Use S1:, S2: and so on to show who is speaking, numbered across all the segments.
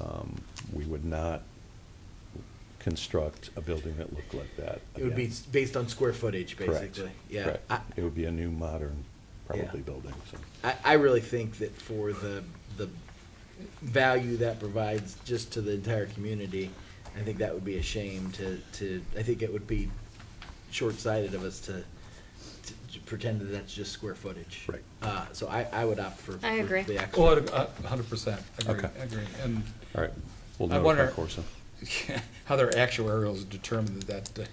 S1: Um, not construct a building that looked like that.
S2: It would be
S1: again.
S2: s- based on square footage,
S1: Correct,
S2: basically. Yeah.
S1: correct.
S2: I,
S1: It would be a new, modern, probably
S2: Yeah.
S1: building, so.
S2: I, I really think that for the, the value that provides just to the entire community, I think that would be a shame to, to, I think it would be short-sighted of us to, to- to pretend that that's just square footage.
S1: Right.
S2: Uh, so I, I would opt for.
S3: I
S2: for
S3: agree.
S2: the extra.
S4: Well, Oh, a hundred percent, agree,
S1: Okay.
S4: agree. And
S1: All right, we'll
S4: I
S1: notify
S4: wonder-
S1: Corson.
S4: how their actuarials determine that, uh,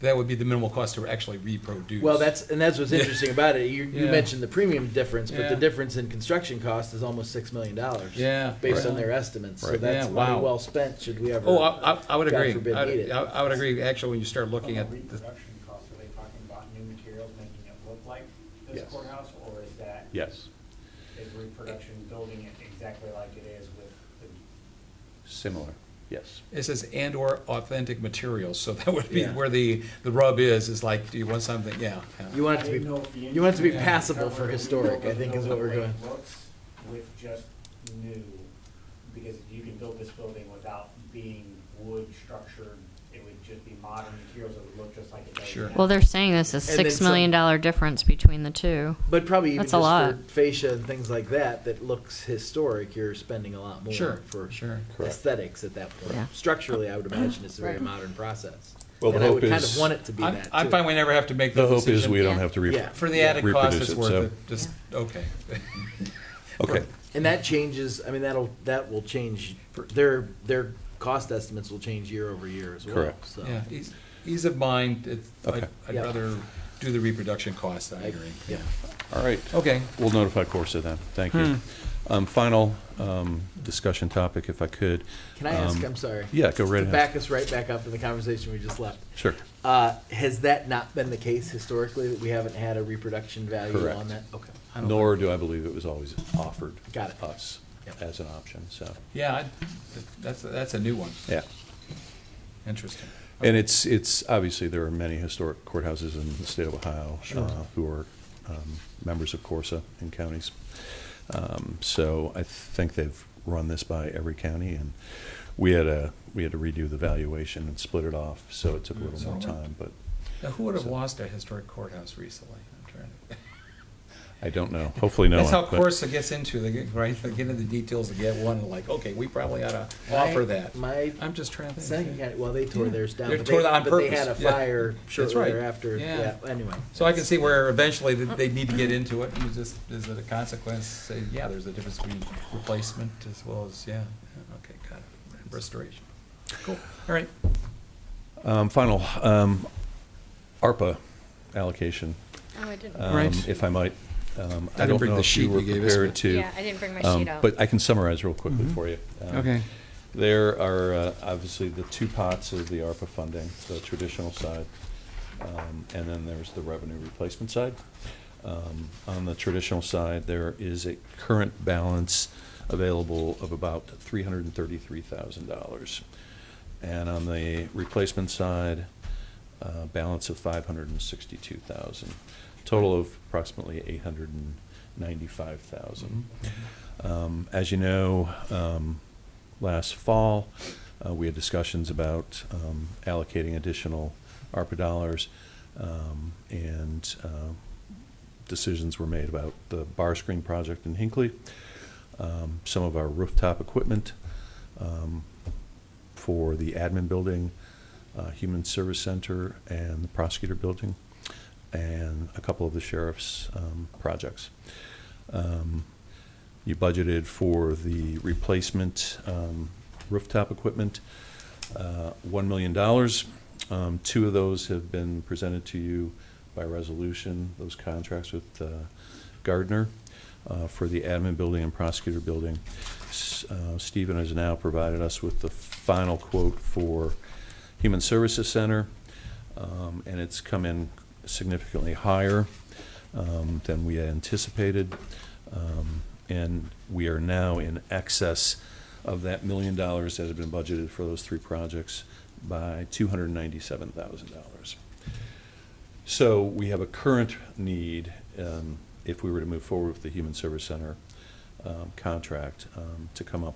S4: that would be the minimal cost to actually reproduce.
S2: Well, that's, and that's what's
S4: Yeah.
S2: interesting about it. You, you
S4: Yeah.
S2: mentioned the premium difference, but the
S4: Yeah.
S2: difference in construction cost is almost six million dollars.
S4: Yeah.
S2: Based on
S4: Right.
S2: their estimates, so
S1: Right.
S2: that's
S4: Yeah,
S2: money
S4: wow.
S2: well spent, should we ever.
S4: Oh, I, I- I would
S2: God
S4: agree.
S2: forbid,
S4: I'd-
S2: need it.
S4: I I would agree, actually, when you start looking at,
S5: From a
S4: the-
S5: reproduction cost, are they talking about new materials making it look like this
S1: Yes.
S5: courthouse? Or is that,
S1: Yes,
S5: is reproduction building it exactly like it is with the?
S1: similar, yes.
S4: it says and/or authentic materials, so that would be
S2: Yeah.
S4: where the, the rub is, is like, do you want something, yeah. yeah.
S2: You want it
S5: I
S2: to
S5: didn't know if the
S2: be, you want it to be
S4: engineer-
S2: passable for
S5: Covered,
S2: historic,
S5: we
S2: I think is what we're
S5: know the way
S2: going.
S5: it looks With just new, because you can build this building without being wood structured, it would just be modern materials that would look just like it does
S4: Sure.
S5: now.
S3: Well, they're saying this is
S2: And then
S3: six million
S2: some-
S3: dollar difference between the two.
S2: But probably even
S3: That's a
S2: just for
S3: lot.
S2: fascia and things like that, that looks historic, you're spending a lot more.
S4: Sure,
S2: For
S4: sure.
S1: Correct.
S2: aesthetics at that
S3: Yeah.
S2: point. Structurally, I would imagine it's a very
S3: Right.
S2: modern process.
S1: Well, the
S2: And I
S1: hope
S2: would kind
S1: is-
S2: of want it to be
S4: I'm,
S2: that
S4: I'm
S2: too.
S4: fine, we never have to make the
S1: The
S4: decision.
S1: hope is we don't
S3: Yeah.
S1: have to re-
S2: Yeah.
S4: For the added cost,
S1: reproduce
S4: it's
S1: it,
S4: worth
S1: so-
S4: it, just, okay.
S1: Okay,
S2: And that changes, I mean, that'll, that will change, their, their cost estimates will change year over year as well.
S1: Correct.
S2: So,
S4: Yeah, ease, ease of mind, it's, I'd
S1: Okay.
S4: I'd
S2: Yeah.
S4: rather do the reproduction cost, I
S2: I-
S4: agree.
S2: yeah.
S1: all right.
S4: Okay.
S1: We'll notify Corsa then, thank you.
S2: Hmm.
S1: Um, Final um, discussion topic, if I could.
S2: Can I ask,
S1: Um,
S2: I'm sorry.
S1: Yeah, go right
S2: To
S1: ahead.
S2: back us right back up in the conversation we just left.
S1: Sure.
S2: Uh, has that not been the case historically, that we haven't had a reproduction value
S1: Correct.
S2: on that? Okay. I don't-
S1: Nor do I believe it was always offered.
S2: Got it.
S1: Us
S2: Yep.
S1: as an option, so,
S4: Yeah, I'd- that's, that's a new one,
S1: yeah.
S4: interesting.
S1: And it's, it's, obviously, there are many historic courthouses in the state of Ohio
S4: Sure.
S1: uh, who are um, members of Corsa in counties. Um, So I think they've run this by every county, and we had a, we had to redo the valuation and split it off, so it took a little more
S4: So-
S1: time, but
S4: Now, who would have lost a historic courthouse recently? I'm trying to.
S1: I don't know. Hopefully no one.
S4: That's how
S1: but-
S4: Corsa gets into, they get, right, they get into the details, they get one, like, okay, we probably ought to
S2: My-
S4: offer that.
S2: My
S4: I'm just trying to
S2: second
S4: think.
S2: county, well, they tore
S4: Yeah.
S2: theirs down.
S4: They
S2: but
S4: tore that on
S2: But they had a
S4: purpose, yeah.
S2: fire
S4: That's
S2: shortly
S4: right.
S2: thereafter.
S4: Yeah.
S2: Yeah, anyway.
S4: So I can see where eventually that they need to get into it, and you just, is it a consequence, say, yeah, there's a difference between replacement as well as, yeah, yeah, okay, got it, restoration. Cool, all right.
S1: Um, Final, um, ARPA allocation,
S3: Oh, I didn't.
S1: um,
S4: Right.
S1: if I might. Um, I
S4: didn't
S1: don't
S4: bring
S1: know
S4: the
S1: if
S4: sheet
S1: you were
S4: you gave us,
S1: prepared
S4: but-
S1: to.
S3: I didn't bring
S1: um, But I can summarize real quickly
S4: Mhm.
S1: for you. Um, There are uh, obviously the two pots of the ARPA funding, the traditional side, um, and then there's the revenue replacement side. Um, On the traditional side, there is a current balance available of about $333,000. And on the replacement side, uh, balance of 562,000, total of approximately 895,000.
S4: Mm-hmm.
S1: Um, As you know, um, last fall, uh, we had discussions about um, allocating additional ARPA dollars, um, and uh, decisions were made about the bar screen project in Hinckley, um, some of our rooftop equipment um, for the admin building, uh, Human Service Center, and the prosecutor building, and a couple of the sheriff's um, projects. Um, you budgeted for the replacement um, rooftop equipment, uh, $1 million. Um, Two of those have been presented to you by resolution, those contracts with uh, Gardner uh, for the admin building and prosecutor building. S- uh, Stephen has now provided us with the final quote for Human Services Center, um, and it's come in significantly higher um, than we had anticipated. Um, And we are now in excess of that million dollars that had been budgeted for those three projects by $297,000. So we have a current need, um, if we were to move forward with the Human Service Center um, contract, um, to come up